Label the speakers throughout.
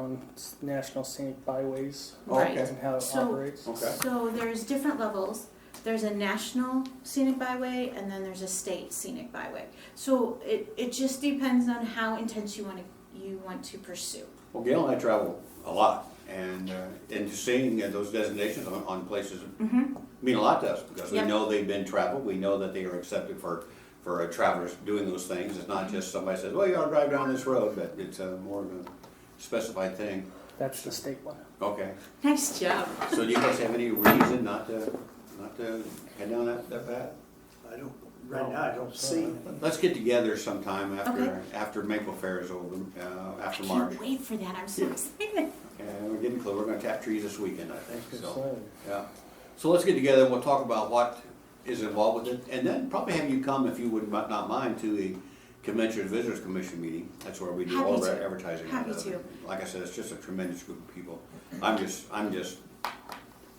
Speaker 1: on s- national scenic byways
Speaker 2: Oh, okay.
Speaker 1: and how it
Speaker 3: So-
Speaker 1: operates.
Speaker 2: Okay.
Speaker 3: So there's different levels. There's a national scenic byway and then there's a state scenic byway. So it, it just depends on how intense you want to, you want to pursue.
Speaker 2: Well, Gail and I travel a lot, and, uh, and seeing uh, those designations on, on places mean a lot to us, because we
Speaker 3: Yep.
Speaker 2: know they've been traveled, we know that they are accepted for, for uh, travelers doing those things. It's not just somebody says, well, you ought to drive down this road, but it's uh, more of a specified thing.
Speaker 1: That's the state one.
Speaker 2: Okay,
Speaker 3: Nice job.
Speaker 2: so do you guys have any reason not to, not to head down that, that path?
Speaker 4: I don't, right now, I don't see anything.
Speaker 2: Let's get together sometime after,
Speaker 3: Okay.
Speaker 2: after Maple Fair is over, uh,
Speaker 3: I
Speaker 2: after March.
Speaker 3: can't wait for that. I'm so
Speaker 2: Yeah.
Speaker 3: excited.
Speaker 2: And we're getting close, we're gonna tap trees this weekend, I think,
Speaker 1: Good
Speaker 2: so.
Speaker 1: sign.
Speaker 2: Yeah, so let's get together, we'll talk about what is involved with it, and then probably have you come, if you would not not mind, to the Convention Visitors Commission meeting. That's where we do all of
Speaker 3: Happy
Speaker 2: our
Speaker 3: to.
Speaker 2: advertising. and
Speaker 3: Happy
Speaker 2: everything.
Speaker 3: to.
Speaker 2: Like I said, it's just a tremendous group of people. I'm just, I'm just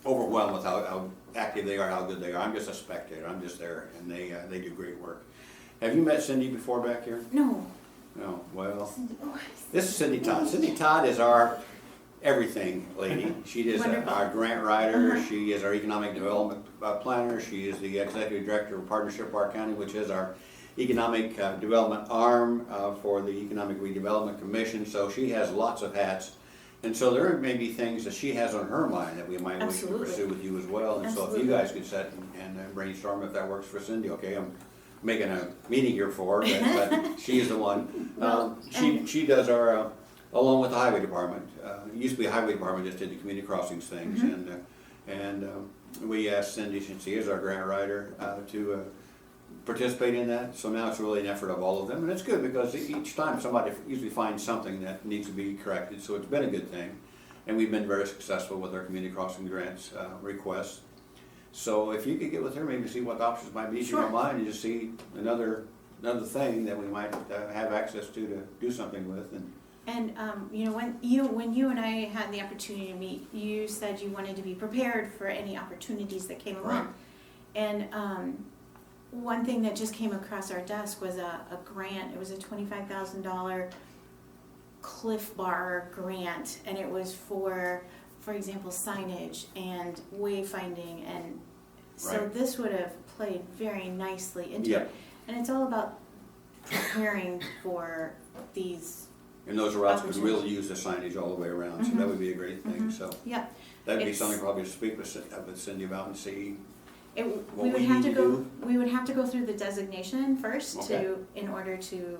Speaker 2: overwhelmed with how, how active they are, how good they are. I'm just a spectator, I'm just there, and they, uh, they do great work. Have you met Cindy before back here?
Speaker 3: No.
Speaker 2: No, well,
Speaker 3: Oh,
Speaker 2: this is Cindy Todd. Cindy Todd is our everything lady. She is
Speaker 3: Wonderful.
Speaker 2: our grant writer.
Speaker 3: Uh-huh.
Speaker 2: She is our economic development uh, planner. She is the executive director of Partnership Park County, which is our economic uh, development arm uh, for the Economic Redevelopment Commission. So she has lots of hats. And so there may be things that she has on her mind that we might wish to
Speaker 3: Absolutely.
Speaker 2: pursue with you as well. And so if
Speaker 3: Absolutely.
Speaker 2: you guys could set and uh, brainstorm if that works for Cindy, okay? I'm making a meeting here for her, but- but she is the one. Um, She,
Speaker 3: and-
Speaker 2: she does our, uh, along with the highway department, uh, it used to be highway department, just did the community crossings things. And, uh, and um, we asked Cindy, since she is our grant writer, uh, to uh, participate in that. So now it's really an effort of all of them, and it's good because e- each time somebody usually finds something that needs to be corrected, so it's been a good thing. And we've been very successful with our community crossing grants uh, requests. So if you could get with her, maybe see what the options might be, if you don't
Speaker 3: Sure.
Speaker 2: mind, and just see another, another thing that we might uh, have access to to do something with, and
Speaker 3: And um, you know when you when you and I had the opportunity to meet, you said you wanted to be prepared for any opportunities that came
Speaker 2: Right.
Speaker 3: along. And um, one thing that just came across our desk was a, a grant. It was a twenty five thousand dollar Cliff Bar grant, and it was for, for example, signage and wayfinding, and so
Speaker 2: Right.
Speaker 3: this would have played very nicely into
Speaker 2: Yeah.
Speaker 3: it. And it's all about preparing for these
Speaker 2: and those routes, because we'll use the signage all the way around, so that would be a great thing, so.
Speaker 3: Yeah,
Speaker 2: That'd be
Speaker 3: Mm-hmm. It's-
Speaker 2: something probably to speak with Cin- uh, with Cindy about and see,
Speaker 3: it,
Speaker 2: What
Speaker 3: we
Speaker 2: we
Speaker 3: would have
Speaker 2: need
Speaker 3: to
Speaker 2: to
Speaker 3: go,
Speaker 2: do?
Speaker 3: we would have to go through the designation first
Speaker 2: Okay.
Speaker 3: to, in order to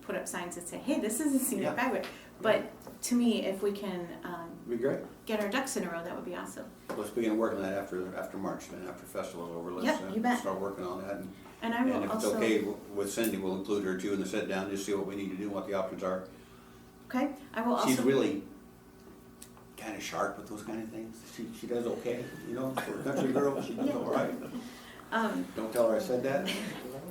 Speaker 3: put up signs that say, hey, this is a scenic
Speaker 2: Yeah.
Speaker 3: byway. But to me, if we can, um,
Speaker 2: be great.
Speaker 3: get our ducks in a row, that would be awesome.
Speaker 2: Let's begin working that after, after March, then after festival's over, let's
Speaker 3: Yep, you
Speaker 2: uh,
Speaker 3: bet.
Speaker 2: start working on that. and-
Speaker 3: And I
Speaker 2: And
Speaker 3: will
Speaker 2: if it's
Speaker 3: also,
Speaker 2: okay w- with Cindy, we'll include her too in the sit down, just see what we need to do, what the options are.
Speaker 3: okay, I will
Speaker 2: She's
Speaker 3: also,
Speaker 2: really kind of sharp with those kind of things. She, she does okay, you know, for a country girl, she does all right.
Speaker 3: um,
Speaker 2: Don't tell her I said that.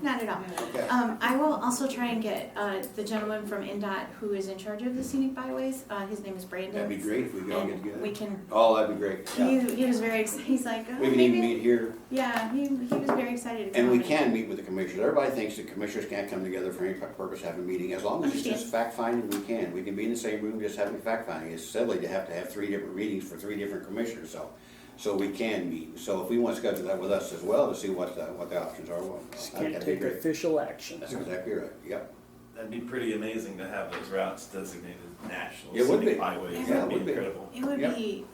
Speaker 3: not at all.
Speaker 2: Okay.
Speaker 3: Um, I will also try and get, uh, the gentleman from NDOT who is in charge of the scenic byways, uh, his name is Brandon.
Speaker 2: That'd be great if we could all get
Speaker 3: And we
Speaker 2: together.
Speaker 3: can,
Speaker 2: Oh, that'd be great,
Speaker 3: he,
Speaker 2: yeah.
Speaker 3: he was very, ex- he's like, oh,
Speaker 2: We can even
Speaker 3: maybe,
Speaker 2: meet here.
Speaker 3: yeah, he, he was very excited. to
Speaker 2: And we
Speaker 3: come
Speaker 2: can meet with the commissioners. Everybody thinks the commissioners can't come together for any purpose, have a meeting. As long as it's
Speaker 3: Understand.
Speaker 2: just fact finding, we can. We can be in the same room just having fact finding. It's silly to have to have three different meetings for three different commissioners, so. So we can meet. So if we want to schedule that with us as well to see what the, what the options are, well,
Speaker 1: Just can't
Speaker 2: that'd be
Speaker 1: take
Speaker 2: great.
Speaker 1: official action.
Speaker 2: That's exactly right, yep.
Speaker 5: That'd be pretty amazing to have those routes designated national
Speaker 2: It would
Speaker 5: scenic
Speaker 2: be.
Speaker 5: highways.
Speaker 3: Yeah,
Speaker 2: it
Speaker 5: That'd be
Speaker 2: would be.
Speaker 5: incredible.
Speaker 3: It would
Speaker 2: Yeah.
Speaker 3: be,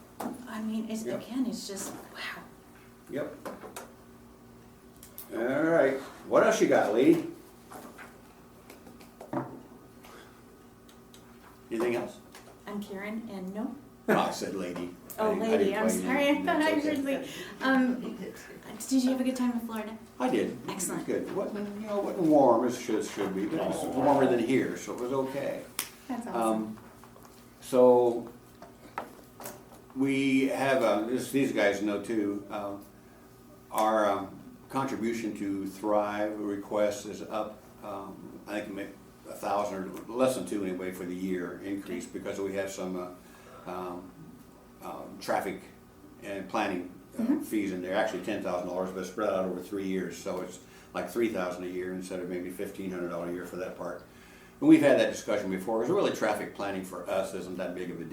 Speaker 3: I mean, it's,
Speaker 2: Yeah.
Speaker 3: again, it's just, wow.
Speaker 2: Yep. All right, what else you got, lady? Anything else?
Speaker 3: I'm Karen, and no,
Speaker 2: No, I said lady. I
Speaker 3: oh
Speaker 2: didn't- I
Speaker 3: lady,
Speaker 2: didn't
Speaker 3: I'm
Speaker 2: play you.
Speaker 3: sorry, I thought
Speaker 2: That's
Speaker 3: I
Speaker 2: okay.
Speaker 3: heard like, um, did you have a good time in Florida?
Speaker 2: I did.
Speaker 3: Excellent.
Speaker 2: It was Good. Wasn't, you know, wasn't warm as should, should be, but it was warmer than here, so it was okay.
Speaker 3: That's awesome.
Speaker 2: Um, so, we have, uh, this, these guys know too, um, our, um, contribution to Thrive request is up, um, I think ma- a thousand or less than two anyway for the year increase because we have some, uh, um, um, traffic and planning uh, fees in there, actually ten thousand dollars, but spread out over three years, so it's like three thousand a year instead of maybe fifteen hundred dollars a year for that part. And we've had that discussion before, because really traffic planning for us isn't that big of a deal.